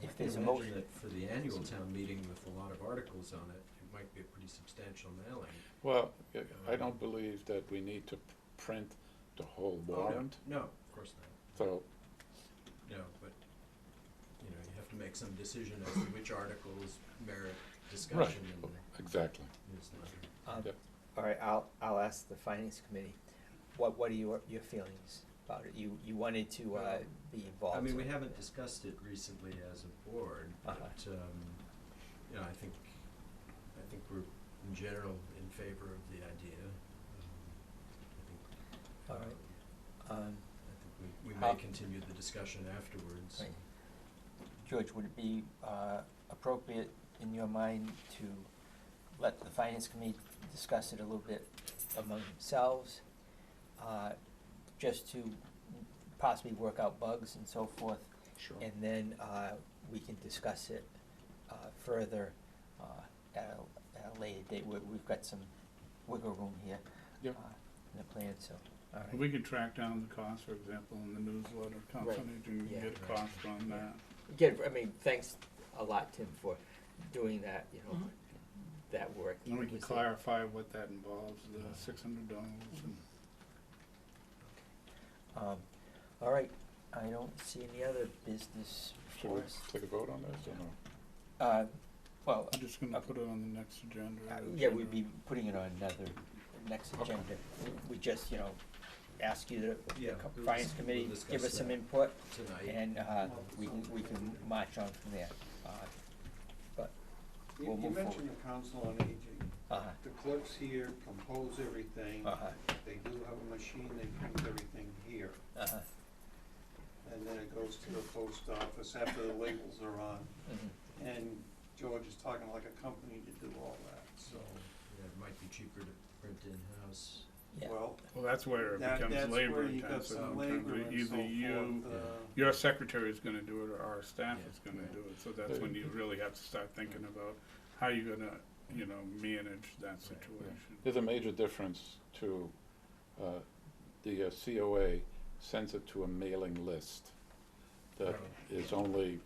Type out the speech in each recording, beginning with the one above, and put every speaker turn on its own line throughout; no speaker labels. There's a
can imagine
motion.
that for the annual town meeting with a lot of articles on it, it might be a pretty substantial mailing.
Well, I don't believe that we need to p- print the whole
Oh, no,
warrant,
No, of course not,
so,
no, but, you know, you have to make some decision as to which articles merit
right,
discussion and
exactly.
it's not.
Um,
Yep.
All right, I'll, I'll ask the finance committee, what, what are your, your feelings about it? You, you wanted to, uh,
Well,
be involved.
I mean, we
so-
haven't discussed it recently as a board, but,
Uh-huh.
um, you know, I think, I think we're in general in favor of the idea. Um, I think,
All
um,
right. Um,
I think we, we
How-
may continue the discussion afterwards.
Right. George, would it be, uh, appropriate in your mind to let the finance committee discuss it a little bit among themselves? Uh, just to possibly work out bugs and so forth?
Sure.
And then, uh, we can discuss it, uh, further, uh, at a, at a later date, we, we've got some wiggle room here.
Yep.
uh, In the plan, so, all right.
We could track down the cost, for example, in the newsletter company, and
yeah.
get a cost on that.
Again, I mean, thanks a lot, Tim, for doing that, you know,
Mm-hmm.
that work.
And we can
Was it-
clarify what that involves, the six hundred dollars and.
Um, all right, I don't see any other business
Should we
for us.
take a vote on this or no?
Uh, well,
I'm just gonna put it on the next agenda.
uh,
or
yeah, we'd be
agenda.
putting it on another, next
Okay.
agenda. We just, you know, ask you to,
Yeah,
the co-
we'll
finance
dis- we'll
committee, give
discuss
us some
that
input,
Tonight.
and, uh, we can, we can march on from there. Uh, But,
You
We'll
you
move forward.
mentioned the council on aging.
uh-huh,
The clerks here compose everything.
Ah.
uh-huh,
They do have a machine that brings everything here.
uh-huh,
And then it goes to the post office after the labels are on.
mhm.
And George is talking like a company to do all that,
So,
so.
yeah, it might be cheaper to print in-house.
yeah.
Well,
Well, that's where it
that, that's
becomes labor
where you got
intensive. in
some
terms
labor
of
and so
Either you,
forth. uh,
your secretary is gonna do it, or our staff
Yeah.
is gonna do it, so that's when you really have to start thinking about how you're gonna, you know, manage that situation.
There's a major difference to, uh, the uh, COA sends it to a mailing list that
Right.
is only,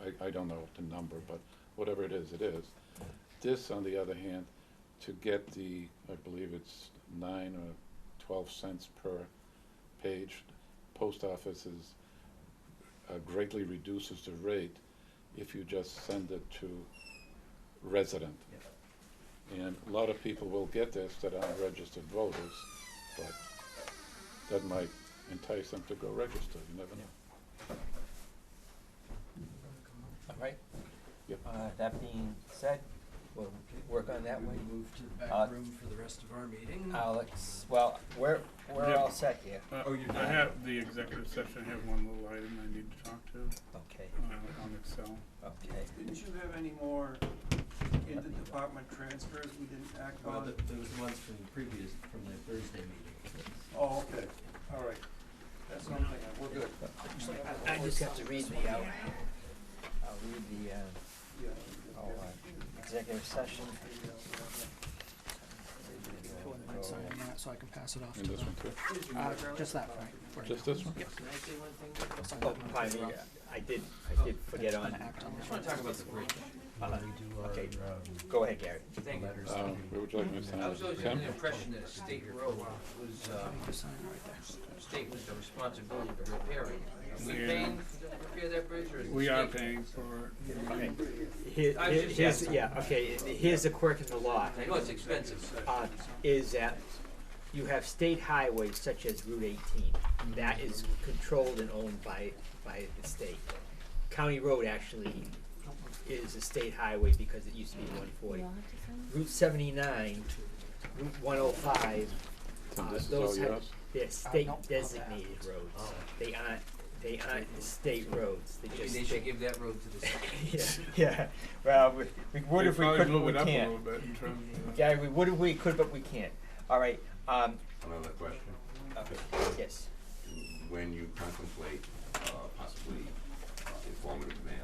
I, I don't know the number, but whatever it is, it is. This, on the other hand, to get the, I believe it's nine or twelve cents per page, post offices uh, greatly reduces the rate if you just send it to resident.
Yeah.
And a lot of people will get this that aren't registered voters, but that might entice them to go register, you never know.
All right.
Yep.
Uh, that being said, we'll work on that
We
one.
will move to the
Uh,
back room for the rest of our meeting.
Alex, well, we're, we're
Yeah.
all set here,
Uh,
Oh, you're
I
done.
have the executive session, I have one little item I need to talk to,
okay,
uh, on Excel.
okay.
Didn't you have any more interdepartment transfers we didn't act
Well,
on?
th- those ones from the previous, from the Thursday meeting.
Oh, okay, all right. That's something, we're good.
I just have to read the, out. I'll read the, uh,
Yeah.
oh, uh, executive session. Oh,
I'd sign that so I can pass it off
And
to
this one
the,
too,
uh, just that, Frank. for now.
just this one?
I'll sign
Oh,
that one.
pardon me, I did, I did forget on,
Gonna act on
Just
that.
wanna talk about the bridge. Uh,
Uh-huh.
We do our,
Okay.
um,
go ahead, Gary.
letters
Um,
to-
where would you like me to sign?
I was always under the
Tim?
impression that state road was, uh,
You sign right there.
state was the responsibility to repair it. Are we paying to repair that bridge or is it
We are
state?
paying for it.
Okay.
I was just
Here's,
asking.
yeah, okay, here's the quirk in the law.
I know it's expensive.
uh, is that you have state highways such as Route eighteen. That is controlled and owned by, by the state. County Road actually is a state highway because it used to be one forty. Route seventy-nine, Route one oh five,
Tim,
uh,
this is all
those have,
yours?
they're
Uh,
state
nope, not that.
designated roads. They aren't, they aren't state roads, they
Maybe
just.
they should give that road to the state.
Yeah, yeah, well, we, we would
They
if we
probably
could,
blew
but we
it up a
can't.
little bit in terms of.
Yeah, we would if we could, but we can't. All right, um,
Another question,
okay, yes.
when you contemplate uh, possibly uh, informative mail uh,